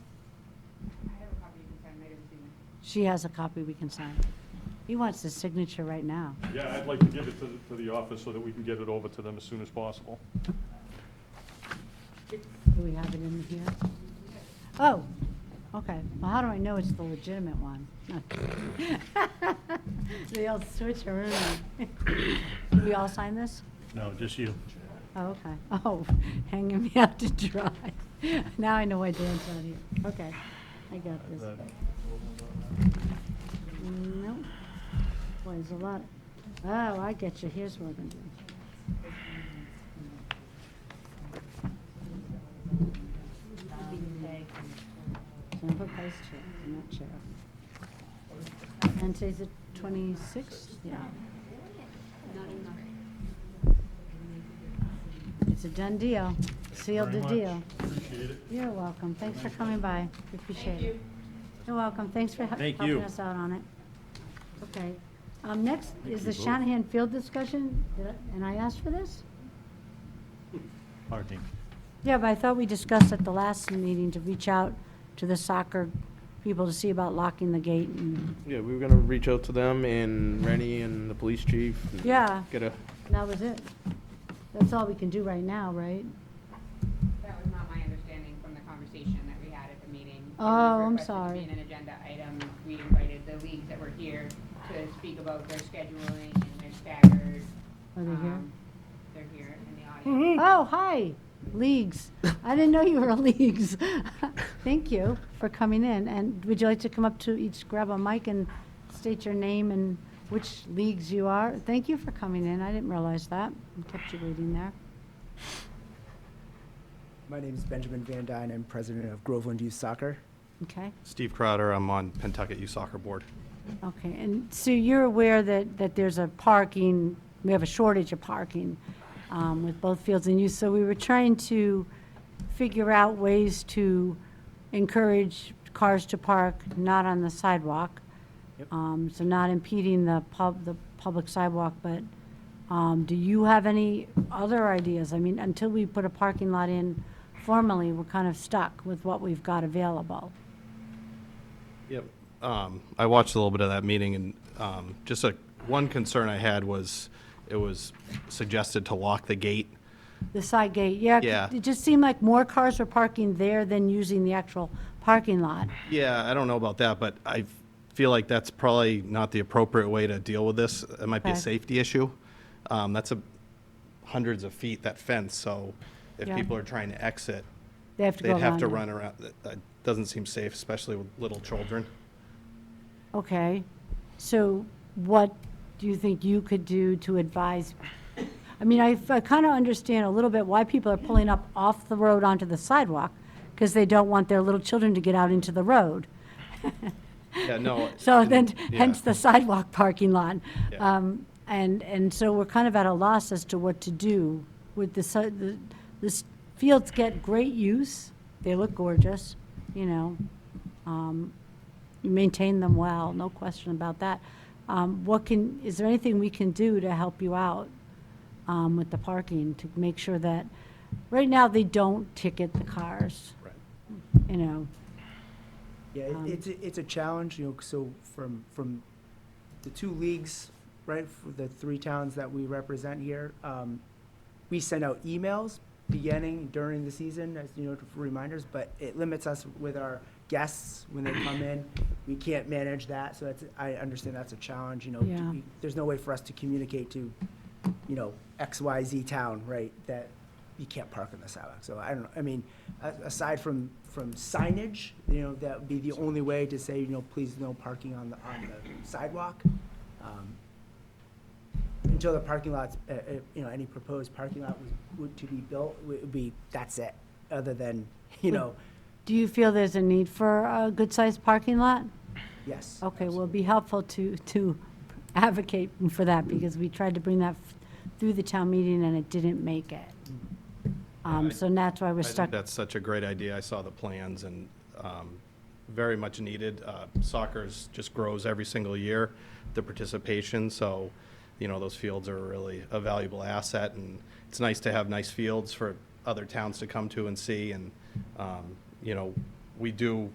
She has a copy we can sign. He wants his signature right now. Yeah, I'd like to give it to, the- to the office so that we can get it over to them as soon as possible. Do we have it in here? Oh, okay. Well, how do I know it's the legitimate one? They all switch around. Do we all sign this? No, just you. Oh, okay. Oh, hanging me out to dry. Now I know why Dan's not here. Okay, I got this. Nope. Boy, there's a lot. Oh, I get you. Here's what I'm gonna do. Sample Vice Chair, I'm not Chair. And today's the twenty-sixth? Yeah. It's a done deal. Sealed the Very much. deal. Appreciate it. You're welcome. Thanks for coming by. We appreciate it. You're welcome. Thanks for he- Thank helping you. us out on it. Okay. Um, next is the Shanahan Field discussion, Did I- and I asked for this? Parking. Yeah, but I thought we discussed at the last meeting to reach out to the soccer people to see about locking the gate and Yeah, we were gonna reach out to them and Rennie and the police chief. and Yeah. Get a, that was it. That's all we can do right now, right? That was not my understanding from the conversation that we had at the meeting. It was Oh, I'm requested to sorry. be an agenda item. We invited the leagues that were here to speak about their scheduling and their staggered. Are they here? um, They're here in the audience. Oh, hi, Leagues. I didn't know you were a Leagues. Thank you for coming in, and would you like to come up to each, grab a mic and state your name and which Leagues you are? Thank you for coming in, I didn't realize that, I kept you waiting there. My name is Benjamin Van Dyne. I'm president of Groveland Youth Soccer. Okay, Steve Crowder, I'm on Pentucket Youth Soccer Board. okay, and Sue, you're aware that, that there's a parking, we have a shortage of parking um, with both fields in use, so we were trying to figure out ways to encourage cars to park not on the sidewalk. Um, So not impeding the pub, the public sidewalk, but um, do you have any other ideas? I mean, until we put a parking lot in formally, we're kind of stuck with what we've got available. Yep. Um, I watched a little bit of that meeting, and um, just a, one concern I had was, it was suggested to lock the gate. The side gate, yeah. c- Yeah. It just seemed like more cars were parking there than using the actual parking lot. Yeah, I don't know about that, but I feel like that's probably not the appropriate way to deal with this. It might be a Okay. safety issue. Um, That's a hundreds of feet, that fence, so if Yeah. people are trying to exit, They have to go they'd around. have to it. run around. That- That doesn't seem safe, especially with little children. Okay, so what do you think you could do to advise? I mean, I, kind of understand a little bit why people are pulling up off the road onto the sidewalk, because they don't want their little children to get out into the road. Yeah, no. So and- then, yeah. hence the sidewalk parking lot. Yeah. Um, And, and so we're kind of at a loss as to what to do with the, si- the, the s- fields get great use. They look gorgeous, you know. um, Maintain them well, no question about that. Um, What can, is there anything we can do to help you out um, with the parking to make sure that, right now, they don't ticket the cars, Right. you know? Yeah, it- it's, a- it's a challenge, you know, so from, from the two leagues, right, for the three towns that we represent here, um, we send out emails beginning during the season, as you know, for reminders, but it limits us with our guests when they come in. We can't manage that, so that's, I understand that's a challenge, you know. Yeah. we- There's no way for us to communicate to, you know, X, Y, Z town, right, that you can't park on the sidewalk. So I don't, know. I mean, a- aside from, from signage, you know, that would be the only way to say, you know, please no parking on the, on the sidewalk. Um, until the parking lots, uh, uh, you know, any proposed parking lot was, would to be built, would be, that's it, other than, you know, Do you feel there's a need for a good-sized parking lot? yes. Okay, well, it'd be helpful to, to advocate for that, because we tried to bring that f- through the town meeting and it didn't make it. Um, so that's why we're Mm. I think stuck. that's such a great idea. I saw the plans and um, very much needed. Uh, Soccer's just grows every single year, the participation, so, you know, those fields are really a valuable asset, and it's nice to have nice fields for other towns to come to and see, and, um, you know, we do